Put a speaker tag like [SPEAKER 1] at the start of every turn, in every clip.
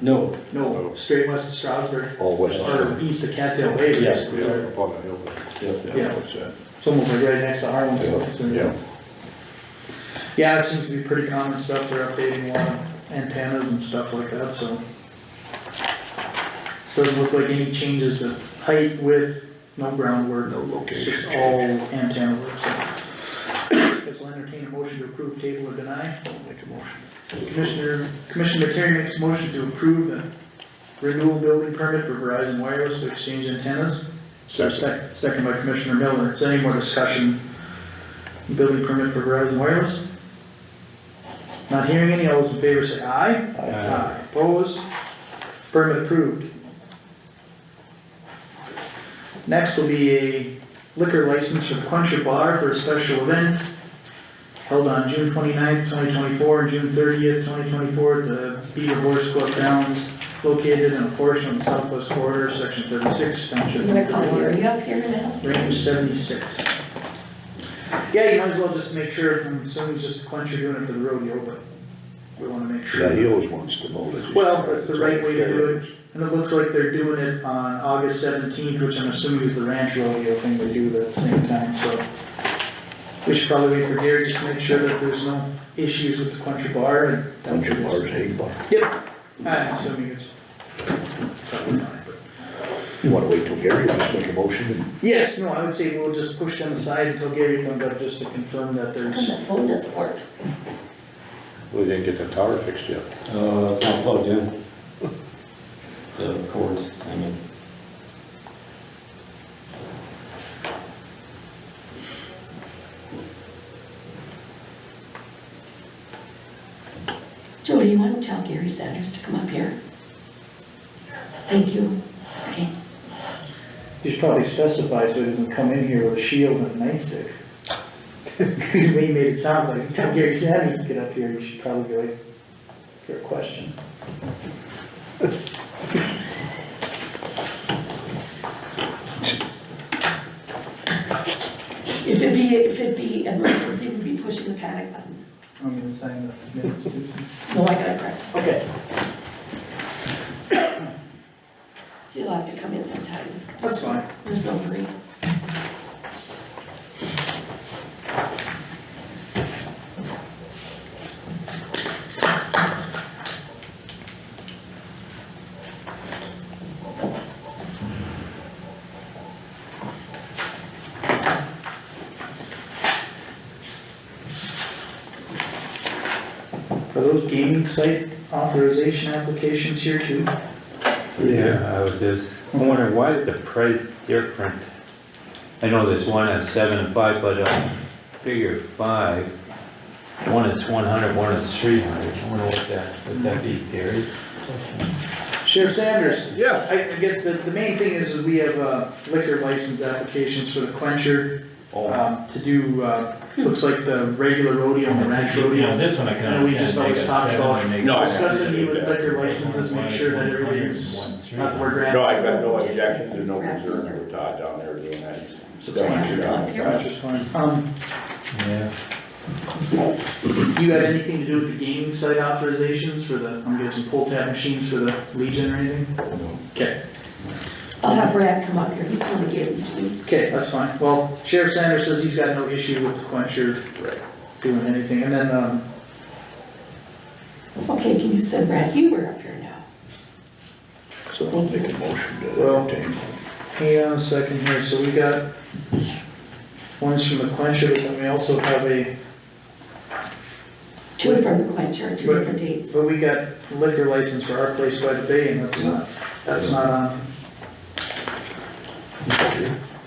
[SPEAKER 1] No,
[SPEAKER 2] No, straight west of Strasburg,
[SPEAKER 3] All west of
[SPEAKER 2] or
[SPEAKER 3] Stirling.
[SPEAKER 2] east of Cattail Way,
[SPEAKER 1] Yeah.
[SPEAKER 2] basically,
[SPEAKER 3] Yeah,
[SPEAKER 2] or
[SPEAKER 3] up on the hill there.
[SPEAKER 1] Yep.
[SPEAKER 2] Yeah.
[SPEAKER 3] what's that?
[SPEAKER 2] it's almost like right next to Harlem. so-
[SPEAKER 3] Yeah,
[SPEAKER 2] Yeah, it seems to be pretty common stuff, they're updating a lot of antennas and stuff like that, so. Doesn't look like any changes to height, width, no groundwork.
[SPEAKER 3] No location
[SPEAKER 2] It's just all antenna work, so. Guess I'll entertain a motion to approve, table, or deny.
[SPEAKER 3] I'll make a motion.
[SPEAKER 2] Commissioner, Commissioner Terry makes a motion to approve the renewal building permit for Verizon Wireless to exchange antennas. Second. Second by Commissioner Miller, is there any more discussion? Building permit for Verizon Wireless? Not hearing any, all those in favor say aye. Aye. Opposed? Permit approved. Next will be a liquor license for Quencher Bar for a special event held on June 29th, twenty-four, and June thirtieth, twenty twenty-four, at the Beaver Horse Club Downs, located in a portion of the southwest quarter, section thirty-six, township.
[SPEAKER 4] I'm gonna call Lori up here and ask. her.
[SPEAKER 2] Range seventy-six. Yeah, you might as well just make sure, I'm assuming just Quencher doing it for the rodeo, but we wanna make
[SPEAKER 3] Yeah,
[SPEAKER 2] sure.
[SPEAKER 3] he always wants to know that. he's-
[SPEAKER 2] Well, that's the right way to do it, and it looks like they're doing it on August seventeenth, which I'm assuming is the ranch rodeo thing they do at the same time, so. We should probably wait for Gary, just to make sure that there's no issues with the Quencher bar and.
[SPEAKER 3] Bunch of bars, eight bar.
[SPEAKER 2] Yep, I'm assuming it's. probably not, but-
[SPEAKER 3] You wanna wait till Gary, just make a motion and
[SPEAKER 2] Yes, no, I would say we'll just push them aside until Gary comes up, just to confirm that
[SPEAKER 4] How
[SPEAKER 2] there's.
[SPEAKER 4] Come, the phone doesn't work.
[SPEAKER 5] We didn't get the tower fixed yet.
[SPEAKER 1] uh, it's not plugged in. The cords, I mean.
[SPEAKER 4] Jody, you wanna tell Gary Sanders to come up here? Thank you. Okay.
[SPEAKER 2] You should probably specify so he doesn't come in here with a shield and a nightstick. He made it sound like, tell Gary Sanders to get up here, you should probably be like, for a question.
[SPEAKER 4] If it be, if it be emergency, we'd be pushing the panic button.
[SPEAKER 2] I'm gonna sign the minutes, Susan.
[SPEAKER 4] No, I gotta correct.
[SPEAKER 2] Okay,
[SPEAKER 4] So you'll have to come in sometime.
[SPEAKER 2] that's fine.
[SPEAKER 4] There's no hurry.
[SPEAKER 2] Are those gaming site authorization applications here too?
[SPEAKER 6] Yeah, I was just wondering, why is the price different? I know there's one at seven and five, but, uh, figure five, one is one hundred, one is three hundred. I wonder what that, would that be, Gary?
[SPEAKER 2] Sheriff Sanders?
[SPEAKER 5] Yeah.
[SPEAKER 2] I, I guess the, the main thing is that we have uh, liquor license applications for the quencher,
[SPEAKER 7] Oh.
[SPEAKER 2] um, to do, uh, looks like the regular rodeo and the ranch rodeo.
[SPEAKER 7] Yeah, this one I
[SPEAKER 2] And
[SPEAKER 7] can.
[SPEAKER 2] we just always talk about
[SPEAKER 1] No, I-
[SPEAKER 2] discussing the liquor licenses, make sure that everything's, not the word grand.
[SPEAKER 3] No, I've got no objection to no concern with Todd down there doing that. He's done what you're doing.
[SPEAKER 2] That's just fine. Um,
[SPEAKER 7] Yeah.
[SPEAKER 2] do you have anything to do with the gaming site authorizations for the, I'm guessing pull tab machines for the Legion or anything? Okay,
[SPEAKER 4] I'll have Brad come up here. He's gonna give it to me.
[SPEAKER 2] okay, that's fine. Well, Sheriff Sanders says he's got no issue with the quencher
[SPEAKER 3] Right.
[SPEAKER 2] doing anything, and then, um,
[SPEAKER 4] Okay, can you send Brad Huber up here now?
[SPEAKER 3] So I'll make a motion to
[SPEAKER 2] Well-
[SPEAKER 3] entertain.
[SPEAKER 2] Hang on a second here, so we got ones from the quencher, but then we also have a,
[SPEAKER 4] Two from the Quencher, two different dates.
[SPEAKER 2] but we got liquor license for our place by the bay, and that's not, that's not on.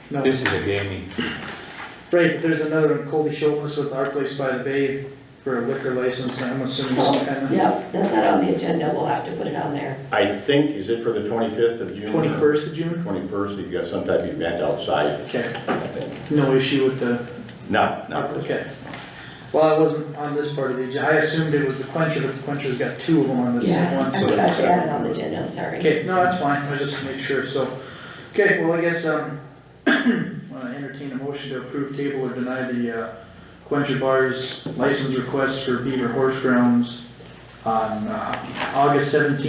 [SPEAKER 2] No,
[SPEAKER 6] This is a gaming,
[SPEAKER 2] right, there's another one, Colby Schultz with our place by the bay for a liquor license, I'm assuming some kind
[SPEAKER 4] Oh, Yep, that's not on the agenda. We'll have to put it on there.
[SPEAKER 3] I think, is it for the twenty-fifth of June?
[SPEAKER 2] of, twenty-first of June?
[SPEAKER 3] Twenty-first, you've got some type of event outside,
[SPEAKER 2] Okay,
[SPEAKER 3] I think.
[SPEAKER 2] no issue with the
[SPEAKER 3] No, not this.
[SPEAKER 2] Okay. Well, I wasn't on this part of the agenda, I assumed it was the quencher, but the quencher's got two of them on this
[SPEAKER 4] Yeah,
[SPEAKER 2] one,
[SPEAKER 4] I
[SPEAKER 2] so.
[SPEAKER 4] forgot to add it on the agenda. I'm sorry.
[SPEAKER 2] Okay, no, that's fine, I just make sure, so, okay, well, I guess, um, wanna entertain a motion to approve table or deny the, uh, Quencher Bar's license request for Beaver Horse Grounds on, uh, August seventeenth.